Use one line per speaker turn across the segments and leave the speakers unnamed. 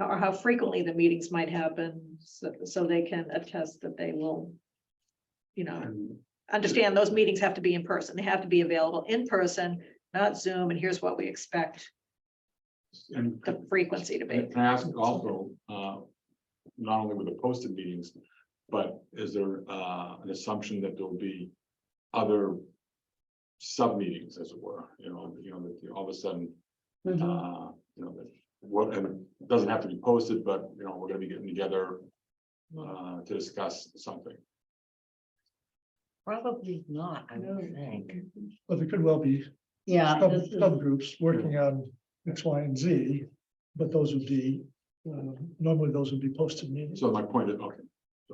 or how frequently the meetings might happen, so, so they can attest that they will. You know,
And
understand those meetings have to be in person. They have to be available in person, not Zoom, and here's what we expect
and
the frequency to be.
can I ask also, uh, not only with the posted meetings, but is there, uh, an assumption that there'll be other sub-meetings, as it were, you know, you know, that you- all of a sudden,
Mm-hmm.
uh, you know, that what, and it doesn't have to be posted, but, you know, we're gonna be getting together uh, to discuss something.
Probably not, I
No.
would think.
But there could well be
Yeah,
sub,
this is-
subgroups working on X, Y, and Z, but those would be, uh, normally those would be posted meetings.
So my point is, okay,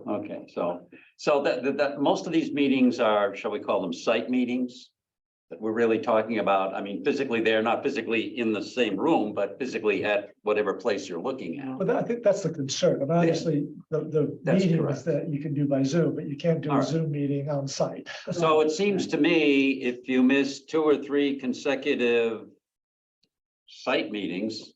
Okay, so, so that, that, that, most of these meetings are, shall we call them site meetings? That we're really talking about, I mean, physically, they're not physically in the same room, but physically at whatever place you're looking at.
But that- I think that's the concern, and obviously, the, the
That's
meetings
correct.
that you can do by Zoom, but you can't do
All
a
right.
Zoom meeting on site.
So it seems to me, if you miss two or three consecutive site meetings,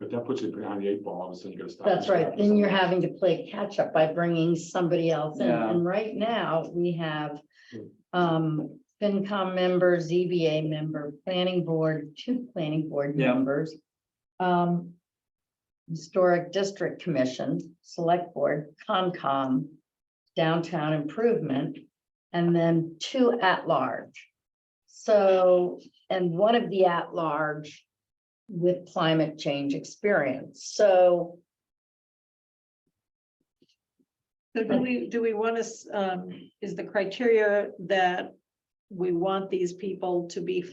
but that puts you behind the eight ball, all of a sudden you gotta stop.
That's right, then you're having to play catch up by bringing somebody else in,
Yeah. Mm.
and right now, we have.
Hmm.
Um, FinCom member, ZBA member, planning board, two planning board
Yeah.
members. Um. Historic District Commission, Select Board, Concom, Downtown Improvement, and then two at-large. So, and one of the at-large with climate change experience, so.
So do we, do we want to, um, is the criteria that we want these people to be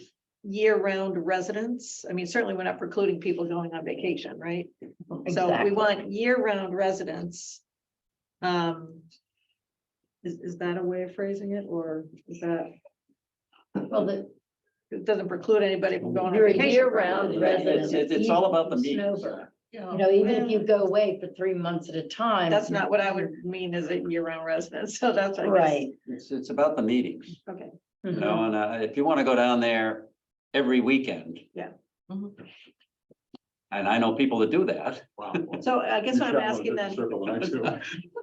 year-round residents? I mean, certainly we're not precluding people going on vacation, right? So we
Exactly.
want year-round residents. Um. Is, is that a way of phrasing it, or is that,
Well, the,
it doesn't preclude anybody from going on
You're a
vacation?
year-round
it's, it's it's all about the meetings.
Snowbird. you know, even if you go away for three months at a time.
That's not what I would mean as a year-round resident, so that's. I guess-
Right.
It's, it's about the meetings,
Okay,
you
Mhm.
know, and uh, if you want to go down there every weekend.
Yeah.
Mhm.
And I know people that do that.
Wow.
so I guess what I'm asking then,
Circle line too.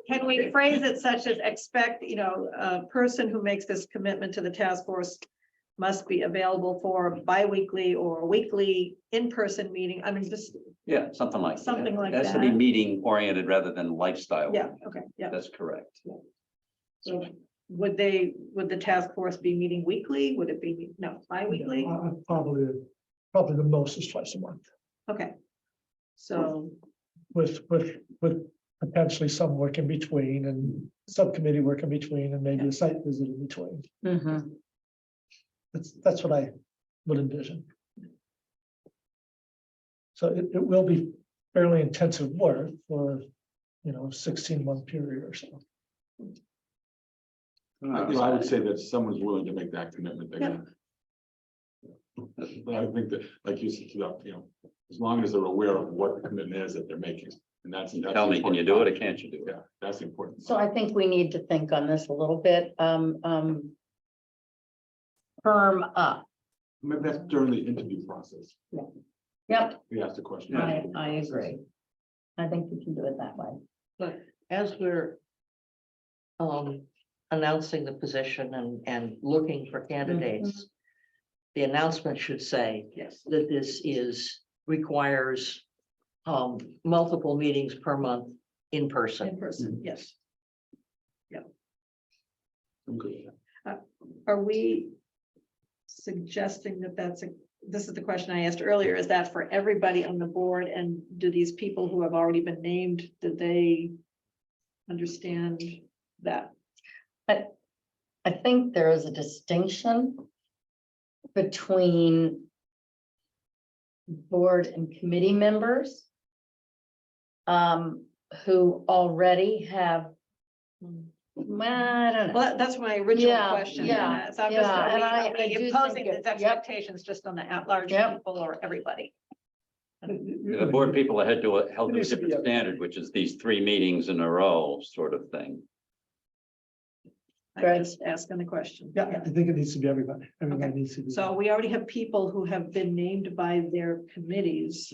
can we phrase it such as expect, you know, a person who makes this commitment to the task force. Must be available for biweekly or weekly in-person meeting, I mean, just,
Yeah, something like. that.
Something like
It Has to be
that.
meeting oriented rather than lifestyle.
yeah, okay, yeah.
That's correct.
So would they, would the task force be meeting weekly? Would it be, no, bi-weekly?
Uh, Probably, probably the most is twice a month,
Okay. So,
with, with, with potentially some work in between and subcommittee work in between and maybe a site visit in between.
Mhm.
That's, that's what I would envision. So it, it will be fairly intensive work for, you know, sixteen month period or so.
Uh,
You know, I would say that someone's willing to make that commitment. they're gonna- But I think that, like you said, you know, as long as they're aware of what the commitment is that they're making, and that's. that's
Tell me, can you do it or
important.
can't you do it?
Yeah, that's important.
So I think we need to think on this a little bit, um, um. Firm up,
Maybe that's during the interview process.
yep,
We asked the question.
I, I agree. I think we can do it that way.
as we're um, announcing the position and, and looking for candidates, the announcement should say
yes,
that this is, requires um, multiple meetings per month in person.
in
Mm.
person, yes.
I'm good with that.
Uh, Are we suggesting that that's a, this is the question I asked earlier, is that for everybody on the board? And do these people who have already been named, do they understand that?
I think there is a distinction between board and committee members um, who already have, well, I don't know.
Well, that- that's my original
Yeah,
question.
yeah,
and, uh, So I'm just,
yeah,
are we-
and
are
I- I do
we
think
imposing these
it- yep.
expectations just on the at-large
Yep.
people or everybody?
The board people had to, a- held to a different standard, which is these three meetings in a row sort of thing.
I'm
Greg?
just asking the question.
Yeah, I think it needs to be everybody, everybody needs to be.
So we already have people who have been named by their committees.